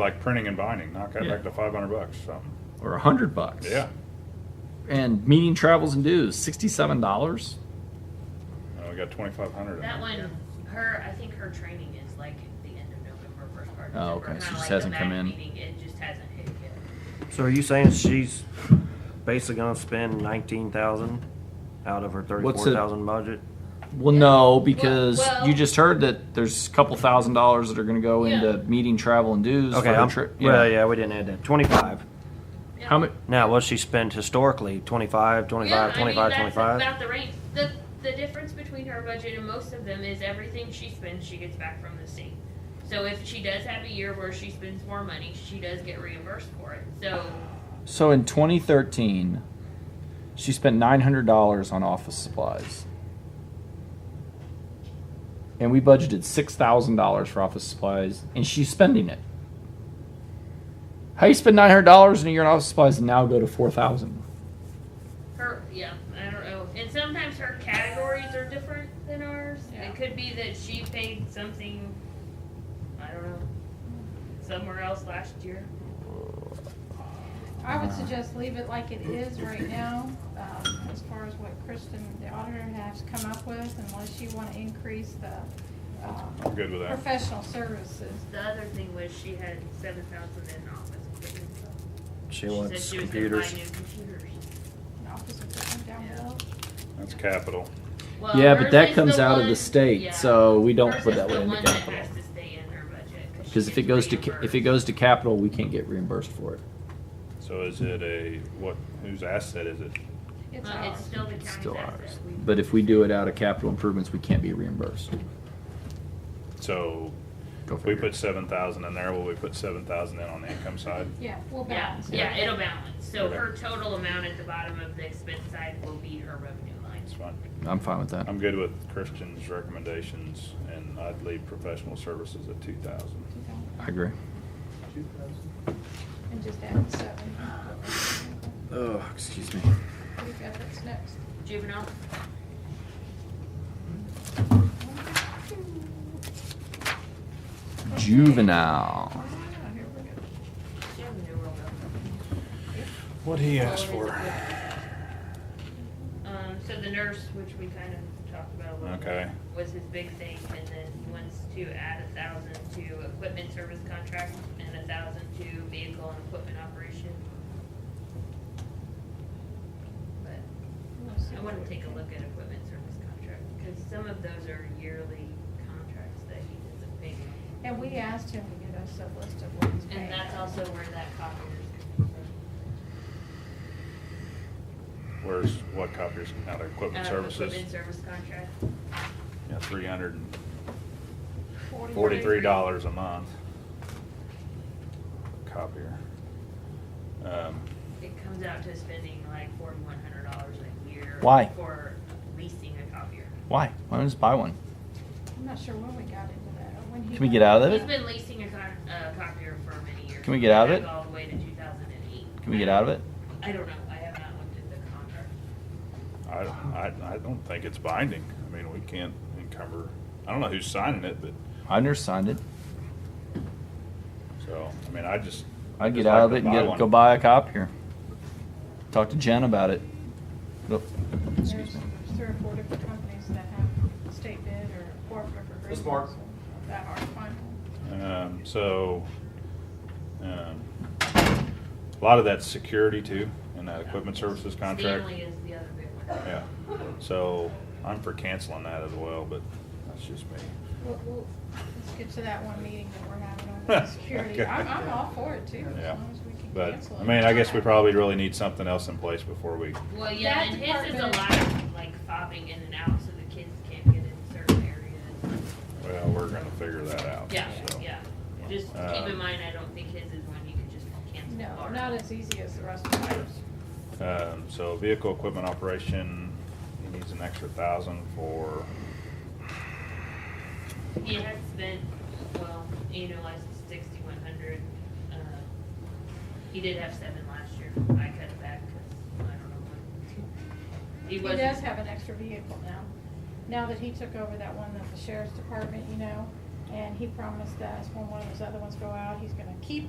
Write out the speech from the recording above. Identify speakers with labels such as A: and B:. A: like printing and binding, knock that
B: Yeah.
A: back to five hundred bucks, so,
B: or a hundred bucks.
A: yeah.
B: And meeting travels and dues, sixty-seven dollars.
A: Uh, we got twenty-five hundred in there.
C: That one, her, I think her training is like the end of November, first part of
B: Oh,
C: December.
B: okay. She
C: kinda
B: just
C: like the
B: hasn't come
C: MAC
B: in.
C: meeting, It just hasn't hit yet.
D: So are you saying she's basically gonna spend nineteen thousand out of her
B: What's
D: thirty-four
B: it-
D: thousand budget?
B: Well,
C: Yeah.
B: no, because
C: Well-
B: you just heard that there's a couple thousand dollars that are going to go
C: Yeah.
B: into meeting travel and dues.
D: Okay,
B: for her
D: I'm,
B: trip.
D: well, yeah, we didn't add that, twenty-five.
C: Yeah.
B: How much?
D: Now, what she spent historically, twenty-five, twenty-five, twenty-five,
C: Yeah, I mean,
D: twenty-five?
C: that's about the range. The, the difference between her budget and most of them is everything she spends, she gets back from the state. So if she does have a year where she spends more money, she does get reimbursed for it. So,
B: So in 2013, she spent nine hundred dollars on office supplies, and we budgeted six thousand dollars for office supplies, and she's spending it. How you spend nine hundred dollars in a year on office supplies and now go to four thousand?
C: her, yeah, I don't know. And sometimes her categories are different than ours. It could be that she paid something, I don't know, somewhere else last year.
E: I would suggest leave it like it is right now, um, as far as what Kristen, the auditor, has come up with, unless you want to increase the
A: I'm
E: um,
A: good with that.
E: professional services.
C: The other thing was she had seven thousand in office equipment. so
D: She
C: said
D: wants
C: she was gonna buy
D: computers.
C: new computers.
E: and Office equipment down
C: Yeah.
E: below.
A: That's capital.
C: Well,
B: yeah,
C: hers
B: but that
C: is
B: comes
C: the
B: out of
C: one-
B: the state,
C: yeah.
B: so we don't
C: Hers
B: put
C: is
B: that
C: the
B: one into
C: one that
B: capital.
C: has to stay in her budget, 'cause she
B: Because if it
C: gets
B: goes to ca- if it
C: reimbursed.
B: goes to capital, we can't get reimbursed for it.
A: So is it a, what, whose asset is it?
E: It's
C: Well,
E: ours.
C: it's still the
B: It's
C: county's
B: still
C: asset.
B: ours.
C: We-
B: But if we do it out of capital improvements, we can't be reimbursed.
A: So
B: Go
A: if we
B: figure.
A: put seven thousand in there, will we put seven thousand in on the income side?
E: Yeah, we'll
C: Yeah,
E: balance. it.
C: yeah, it'll balance, so
A: Okay.
C: her total amount at the bottom of the expense side will be her revenue line.
A: That's fine.
B: I'm fine with that.
A: I'm good with Christian's recommendations and I'd leave professional services at two thousand.
B: I agree.
E: And just add the seven.
B: Oh, excuse me.
E: We've got what's next.
C: Juvenile,
B: Juvenile.
E: Ah, here we go.
C: she have a new role
A: What he asked
C: Well, Oh, it
A: for.
C: though. Um, so the nurse, which we kind of talked about a little bit.
A: Okay.
C: was his big thing, and then he wants to add a thousand to equipment service contract and a thousand to vehicle and equipment operation. But I wanna take a look at equipment service contract, because some of those are yearly contracts that he doesn't pay.
E: And we asked him to get us a list of what he's paying.
C: And that's also where that copier is.
A: Where's, what copiers, now their equipment
C: Uh,
A: services?
C: Equipment service contract.
A: Yeah, three hundred and
E: Forty-
A: forty-three dollars a month. Copier. Um,
C: It comes out to spending like forty-one hundred dollars a year.
B: Why?
C: For leasing a copier.
B: Why? Why don't we just buy one?
E: I'm not sure when we got into that, or when he.
B: Can we get out of
C: He's
B: it?
C: been leasing a con- uh, copier for many years.
B: Can we get out of
C: Back
B: it?
C: All the way to 2008.
B: Can we get out of it?
C: I don't know. I have not looked at the contract.
A: I, I, I don't think it's binding. I mean, we can't encumber, I don't know who's signing it, but,
B: I never signed it.
A: so, I mean, I just.
B: I'd get
A: just like
B: out of
A: to
B: it and
A: buy
B: get,
A: one.
B: go buy a cop here. Talk to Jen about it. Look,
E: There's
B: Excuse me.
E: there's three or four different companies that have state bid or corporate agreements.
D: That's Mark.
E: That are final.
A: Um, so, um, a lot of that's security too, in that equipment services contract.
C: Stanley is the other big one.
A: Yeah, so I'm for canceling that as well, but that's just me.
E: We'll, we'll, let's get to that one meeting that we're having on the security. I'm, I'm all for it too, as
A: Yeah.
E: long as we can
A: But,
E: cancel it.
A: I mean, I guess we probably really need something else in place before we,
C: Well, yeah,
E: That
C: and his is a
E: department-
C: lot of like fobbing in and out, so the kids can't get in certain areas.
A: well, we're gonna figure that out.
C: Yeah,
A: so.
C: yeah. Just keep
A: Um,
C: in mind, I don't think his is one you can just cancel.
E: No,
C: or-
E: not as easy as the rest of ours.
A: Um, so vehicle equipment operation, he needs an extra thousand for,
C: He had spent, well, annualized sixty-one hundred, uh, he did have seven last year, I cut it back, cause I don't know when. He
E: He does
C: wasn't,
E: have an extra vehicle now, now that he took over that one at the sheriff's department, you know, and he promised us when one of those other ones go out, he's gonna keep